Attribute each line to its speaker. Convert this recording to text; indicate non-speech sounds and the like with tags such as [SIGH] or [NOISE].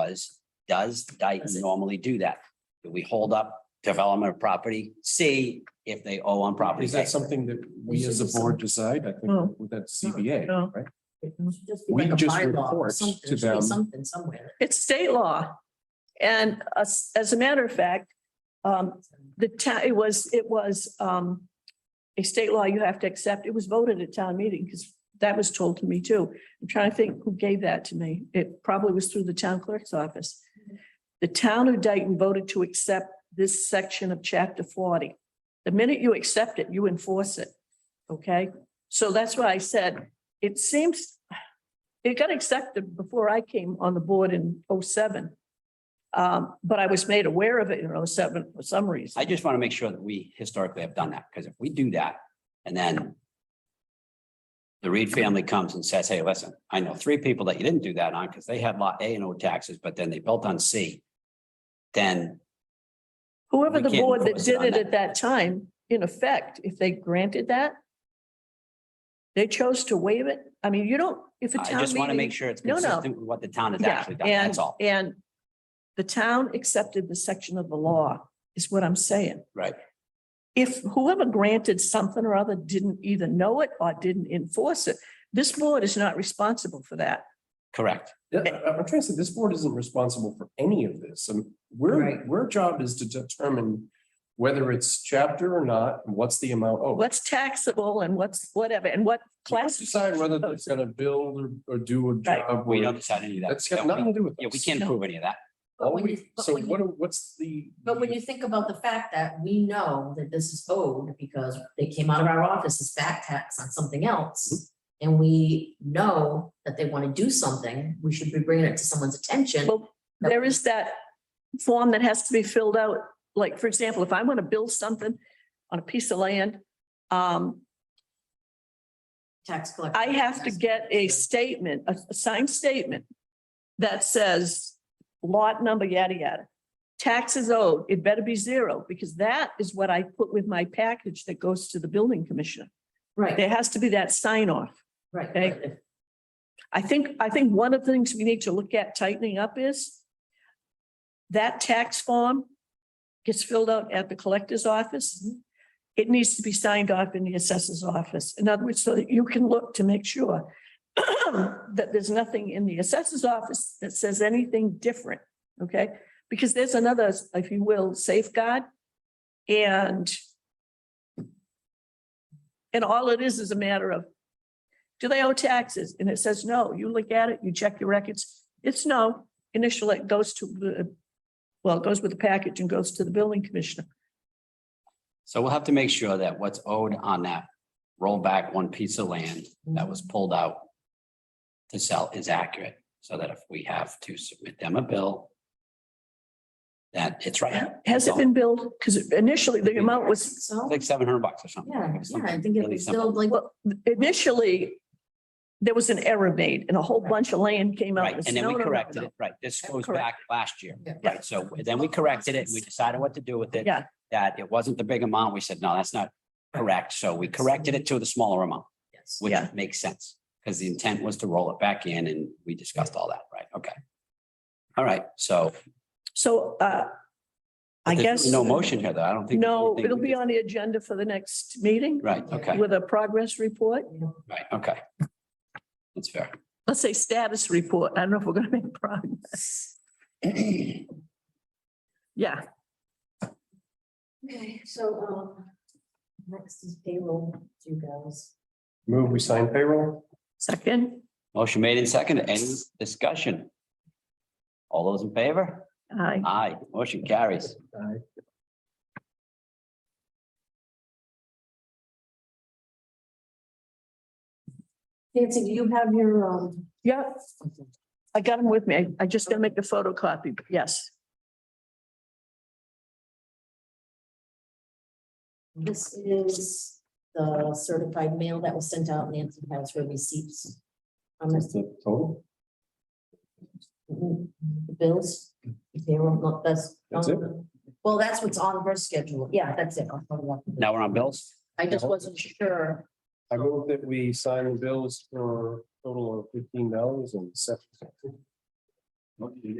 Speaker 1: was, does Dayton normally do that? Do we hold up development of property? See if they owe on property.
Speaker 2: Is that
Speaker 1: tax.
Speaker 2: something that we as a board decide? I
Speaker 3: Oh.
Speaker 2: think that's CBA,
Speaker 4: No.
Speaker 2: right?
Speaker 3: It should just be
Speaker 2: We
Speaker 3: like a
Speaker 2: just
Speaker 3: bylaw or
Speaker 2: report
Speaker 3: something.
Speaker 2: to
Speaker 3: There should be
Speaker 2: them.
Speaker 3: Something somewhere.
Speaker 4: It's state law. And as, as a matter of fact, um, the town, it was, it was, um, a state law you have to accept. It was voted at town meeting because that was told to me too. I'm trying to think who gave that to me. It probably was through the town clerk's office.
Speaker 3: Mm-hmm.
Speaker 4: The town of Dayton voted to accept this section of chapter forty. The minute you accept it, you enforce it. Okay? So that's why I said, it seems it got accepted before I came on the board in 07. Um, but I was made aware of it in 07 for some reason.
Speaker 1: I just want to make sure that we historically have done that, because if we do that and then the Reed family comes and says, hey, listen, I know three people that you didn't do that on because they had lot A and O taxes, but then they built on C. Then
Speaker 4: Whoever
Speaker 1: we
Speaker 4: the
Speaker 1: can't
Speaker 4: board that
Speaker 1: enforce it
Speaker 4: did
Speaker 1: on
Speaker 4: it
Speaker 1: that.
Speaker 4: at that time, in effect, if they granted that, they chose to waive it. I mean, you don't, if a
Speaker 1: I
Speaker 4: town
Speaker 1: just want to make
Speaker 4: meeting.
Speaker 1: sure it's
Speaker 4: No, no.
Speaker 1: consistent with what the town has
Speaker 4: Yeah,
Speaker 1: actually done.
Speaker 4: and,
Speaker 1: That's all.
Speaker 4: and the town accepted the section of the law is what I'm saying.
Speaker 1: Right.
Speaker 4: if whoever granted something or other didn't either know it or didn't enforce it, this board is not responsible for that.
Speaker 1: Correct.
Speaker 2: Yeah, I- I'm trying to say, this board isn't responsible for any of this. And we're,
Speaker 3: Right.
Speaker 2: we're job is to determine whether it's chapter or not, and what's the amount owed.
Speaker 4: What's taxable and what's whatever and what class.
Speaker 2: Decide whether it's gonna build or, or do a
Speaker 4: Right.
Speaker 2: job.
Speaker 1: We
Speaker 2: or-
Speaker 1: don't decide any of that.
Speaker 2: That's got
Speaker 1: Don't we?
Speaker 2: nothing to do with.
Speaker 1: Yeah, we
Speaker 2: us.
Speaker 1: can't
Speaker 4: No.
Speaker 1: prove any of that.
Speaker 2: All
Speaker 3: But when
Speaker 2: we-
Speaker 3: you- but
Speaker 2: So
Speaker 3: when you-
Speaker 2: what, are- what's the?
Speaker 3: But when you think about the fact that we know that this is owed because they came out of our office as back tax on something else. And we know that they want to do something, we should be bringing it to someone's attention.
Speaker 4: Well, there is that form that has to be filled out. Like, for example, if I want to build something on a piece of land, um,
Speaker 3: Tax collector.
Speaker 4: I have to get a statement, a a signed statement that says lot number, yada, yada. Taxes owed, it better be zero, because that is what I put with my package that goes to the building commissioner.
Speaker 3: Right,
Speaker 4: There has to be that sign off.
Speaker 3: right.
Speaker 4: okay.
Speaker 3: but if-
Speaker 4: I think, I think one of the things we need to look at tightening up is that tax form gets filled out at the collector's office. It needs to be signed off in the assessor's office. In other words, so that you can look to make sure [CLEARS THROAT] that there's nothing in the assessor's office that says anything different, okay? Because there's another, if you will, safeguard and and all it is is a matter of do they owe taxes? And it says no. You look at it, you check your records. It's no. Initial, it goes to the, well, it goes with the package and goes to the building commissioner.
Speaker 1: So we'll have to make sure that what's owed on that rollback one piece of land that was pulled out to sell is accurate, so that if we have to submit them a bill, that it's right.
Speaker 4: Has it been billed? Because initially the amount was,
Speaker 3: So,
Speaker 1: Like seven hundred bucks or something.
Speaker 3: yeah, yeah, I
Speaker 1: Something
Speaker 3: think it
Speaker 1: really
Speaker 3: was
Speaker 1: simple.
Speaker 3: still like,
Speaker 4: well, initially there was an error made and a whole bunch of land came out.
Speaker 1: Right, and then
Speaker 4: said,
Speaker 1: we
Speaker 4: "No, no, no,
Speaker 1: corrected
Speaker 4: no."
Speaker 1: it, right, this
Speaker 4: That's
Speaker 1: goes
Speaker 4: correct.
Speaker 1: back last year,
Speaker 3: Yeah.
Speaker 1: right, so then we corrected it, and we decided what to do with it.
Speaker 4: Yeah.
Speaker 1: That it wasn't the big amount, we said, no, that's not correct, so we corrected it to the smaller amount,
Speaker 3: yes.
Speaker 1: which
Speaker 4: Yeah.
Speaker 1: makes sense. Because the intent was to roll it back in, and we discussed all that, right, okay. All right, so
Speaker 4: So, uh, I
Speaker 1: But there's
Speaker 4: guess.
Speaker 1: No motion here, though. I don't think.
Speaker 4: No,
Speaker 1: anything-
Speaker 4: it'll be on the agenda for the next meeting
Speaker 1: Right, okay,
Speaker 4: with a progress report.
Speaker 1: right, okay. That's fair.
Speaker 4: Let's say status report. I don't know if we're going to make progress. Yeah.
Speaker 3: Okay, so, um, next is payroll, you guys.
Speaker 2: Move, we sign payroll?
Speaker 4: Second,
Speaker 1: Motion made and seconded. Any discussion? All those in favor?
Speaker 4: aye.
Speaker 1: Aye, motion carries.
Speaker 2: Aye.
Speaker 3: Nancy, do you have your, um?
Speaker 4: Yep, I got them with me. I- I just gotta make a photocopy, but yes.
Speaker 3: This is the certified mail that was sent out, Nancy has her receipts. Um, On
Speaker 2: That's the total?
Speaker 3: the bills, if they were not, that's.
Speaker 2: That's it?
Speaker 3: Well, that's what's on her schedule, yeah, that's it. I'll follow up.
Speaker 1: Now we're on bills.
Speaker 3: I just wasn't sure,
Speaker 2: I move that we sign the bills for a total of fifteen dollars and seven.